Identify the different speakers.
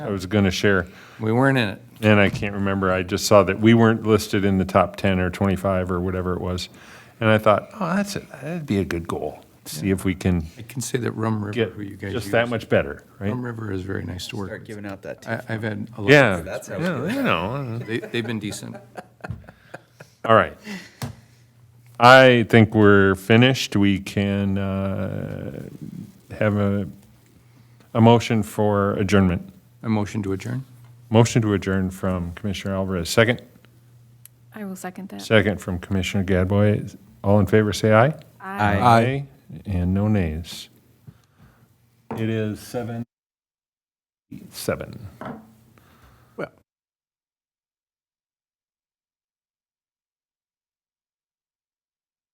Speaker 1: I was going to share.
Speaker 2: We weren't in it.
Speaker 1: And I can't remember, I just saw that we weren't listed in the top 10 or 25 or whatever it was. And I thought, oh, that's, a- that'd be a good goal, see if we can
Speaker 2: I can say that Rum River,
Speaker 1: get
Speaker 2: who you guys use.
Speaker 1: just that much better,
Speaker 2: Rum
Speaker 1: right?
Speaker 2: River is very nice to work
Speaker 3: Start
Speaker 2: with.
Speaker 3: giving out that.
Speaker 2: I, I've had a lot.
Speaker 1: Yeah,
Speaker 3: That's how we do
Speaker 1: yeah, you know,
Speaker 2: They, they've been decent.
Speaker 1: all right. I think we're finished, we can uh, have a, a motion for adjournment.
Speaker 2: A motion to adjourn?
Speaker 1: Motion to adjourn from Commissioner Alvarez, second?
Speaker 4: I will second that.
Speaker 1: Second from Commissioner Gadboy. All in favor, say aye.
Speaker 4: Aye.
Speaker 2: Aye.
Speaker 1: And no nays. It is seven. Seven.